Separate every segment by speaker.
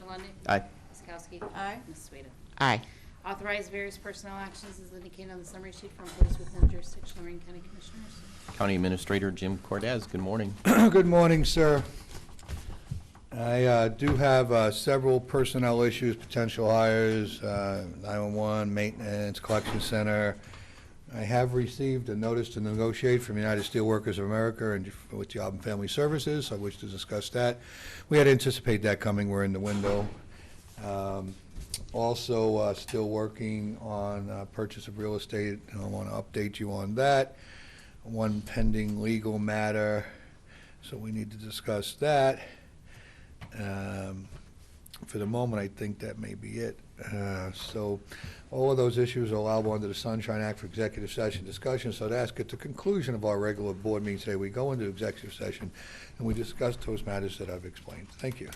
Speaker 1: Lundey.
Speaker 2: Aye.
Speaker 1: Ms. Kowski.
Speaker 3: Aye.
Speaker 1: Ms. Swita.
Speaker 4: Aye.
Speaker 1: Authorize various personnel actions as indicated on the summary sheet for employees within jurisdiction of Lorraine County Commissioners.
Speaker 2: County Administrator Jim Cordez, good morning.
Speaker 5: Good morning, sir. I uh, do have uh, several personnel issues, potential hires, uh, 911, maintenance, collection center. I have received a notice to negotiate from United Steelworkers of America and with Job and Family Services. I wish to discuss that. We had anticipated that coming. We're in the window. Um, Also, uh, still working on uh, purchase of real estate. I want to update you on that. One pending legal matter. So we need to discuss that. Um, For the moment, I think that may be it. Uh, So all of those issues are allowable under the Sunshine Act for executive session discussion. So to ask at the conclusion of our regular board meeting today, we go into executive session and we discuss those matters that I've explained. Thank you.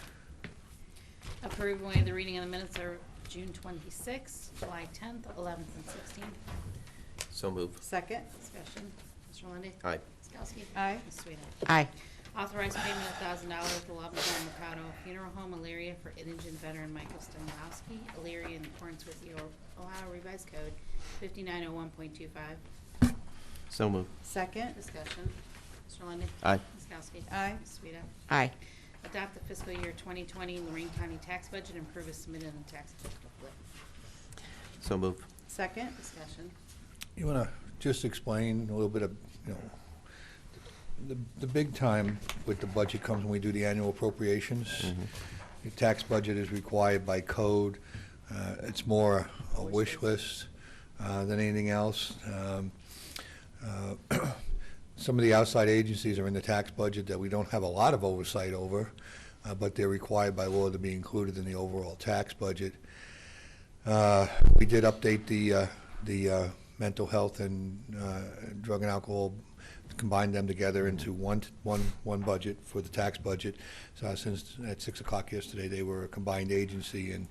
Speaker 1: Approve and waive the reading of the minutes are June 26th, July 10th, 11th, and 16th.
Speaker 2: So moved.
Speaker 3: Second.
Speaker 1: Discussion. Mr. Lundey.
Speaker 2: Aye.
Speaker 1: Ms. Kowski.
Speaker 3: Aye.
Speaker 1: Ms. Swita.
Speaker 4: Aye.
Speaker 1: Authorize payment of thousand dollars to Love John Mercado Funeral Home, Elyria, for indigent veteran Michael Stemlowski, Elyria, in accordance with the Ohio Revised Code fifty-nine oh one point two five.
Speaker 2: So moved.
Speaker 3: Second.
Speaker 1: Discussion. Mr. Lundey.
Speaker 2: Aye.
Speaker 1: Ms. Kowski.
Speaker 3: Aye.
Speaker 1: Ms. Sueda.
Speaker 4: Aye.
Speaker 1: Adopt the fiscal year twenty twenty Lorraine County tax budget and approve as submitted in the tax booklet.
Speaker 2: So moved.
Speaker 3: Second.
Speaker 1: Discussion.
Speaker 5: You want to just explain a little bit of, you know, the, the big time with the budget comes when we do the annual appropriations. The tax budget is required by code. Uh, It's more a wish list uh, than anything else. Um, uh, Some of the outside agencies are in the tax budget that we don't have a lot of oversight over, uh, but they're required by law to be included in the overall tax budget. Uh, We did update the, uh, the uh, mental health and uh, drug and alcohol, combined them together into one, one, one budget for the tax budget. So since at six o'clock yesterday, they were a combined agency and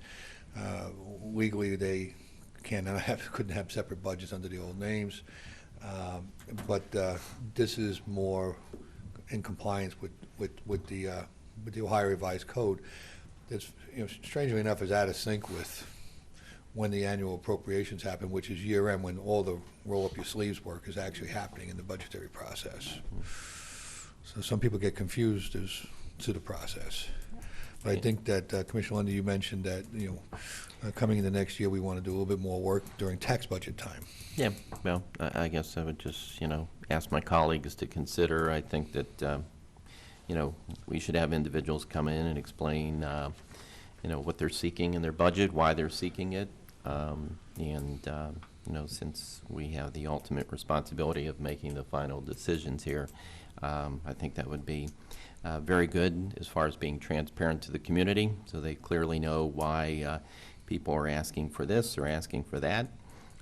Speaker 5: uh, legally they cannot have, couldn't have separate budgets under the old names. Um, But uh, this is more in compliance with, with, with the, uh, with the Ohio Revised Code. That's, you know, strangely enough, is out of sync with when the annual appropriations happen, which is year end, when all the roll-up-your-sleeves work is actually happening in the budgetary process. So some people get confused as to the process. But I think that, uh, Commissioner Lundy, you mentioned that, you know, uh, coming into next year, we want to do a little bit more work during tax budget time.
Speaker 2: Yeah, well, I, I guess I would just, you know, ask my colleagues to consider, I think that, um, you know, we should have individuals come in and explain, uh, you know, what they're seeking in their budget, why they're seeking it. Um, and, um, you know, since we have the ultimate responsibility of making the final decisions here, um, I think that would be, uh, very good as far as being transparent to the community, so they clearly know why, uh, people are asking for this or asking for that.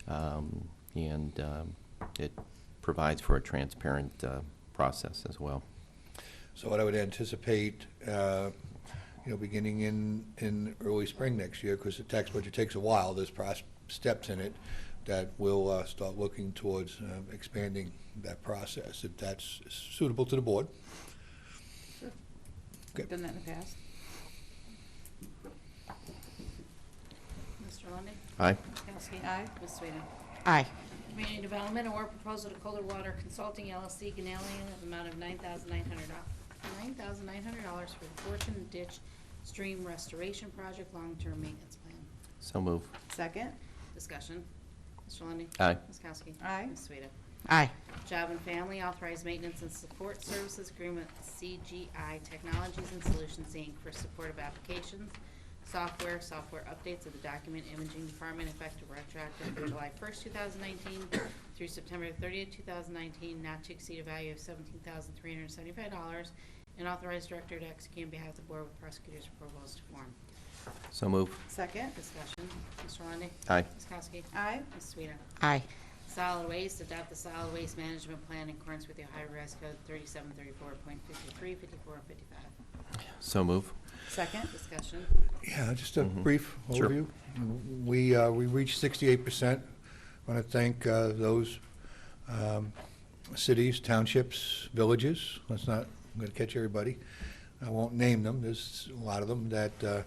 Speaker 2: Um, and, um, it provides for a transparent, uh, process as well.
Speaker 5: So what I would anticipate, uh, you know, beginning in, in early spring next year, because the tax budget takes a while, there's pros- steps in it that will uh, start looking towards uh, expanding that process, if that's suitable to the board. Good.
Speaker 3: Done that in the past.
Speaker 1: Mr. Lundey.
Speaker 2: Aye.
Speaker 1: Ms. Kowski.
Speaker 3: Aye.
Speaker 1: Ms. Swita.
Speaker 4: Aye.
Speaker 1: Community Development Award Proposal to Kohler Water Consulting LLC, Ganalion, of the amount of nine thousand nine hundred dollars for the Fortune Ditch Stream Restoration Project Long-Term Maintenance Plan.
Speaker 2: So move.
Speaker 3: Second.
Speaker 1: Discussion. Mr. Lundey.
Speaker 2: Aye.
Speaker 1: Ms. Kowski.
Speaker 3: Aye.
Speaker 1: Ms. Sueda.
Speaker 4: Aye.
Speaker 1: Job and Family Authorized Maintenance and Support Services Agreement with CGI Technologies and Solutions, Inc. for support of applications, software, software updates of the Document Imaging Department effective retroactive from July 1st, 2019 through September 30th, 2019, not to exceed a value of $17,375, and authorized director to execute on behalf of the board with prosecutor's approval as to form.
Speaker 2: So move.
Speaker 3: Second.
Speaker 1: Discussion. Mr. Lundey.
Speaker 2: Aye.
Speaker 1: Ms. Kowski.
Speaker 3: Aye.
Speaker 1: Ms. Sueda.
Speaker 4: Aye.
Speaker 1: Solid Waste, adopt the solid waste management plan in accordance with the Ohio Revised Code 3734.53, 54, and 55.
Speaker 2: So move.
Speaker 3: Second.
Speaker 1: Discussion.
Speaker 5: Yeah, just a
Speaker 2: Mhm.
Speaker 5: brief
Speaker 2: Sure.
Speaker 5: overview. We, uh, we reached sixty-eight percent. I want to thank uh, those um, cities, townships, villages, let's not, I'm going to catch everybody. I won't name them, there's a lot of them that uh,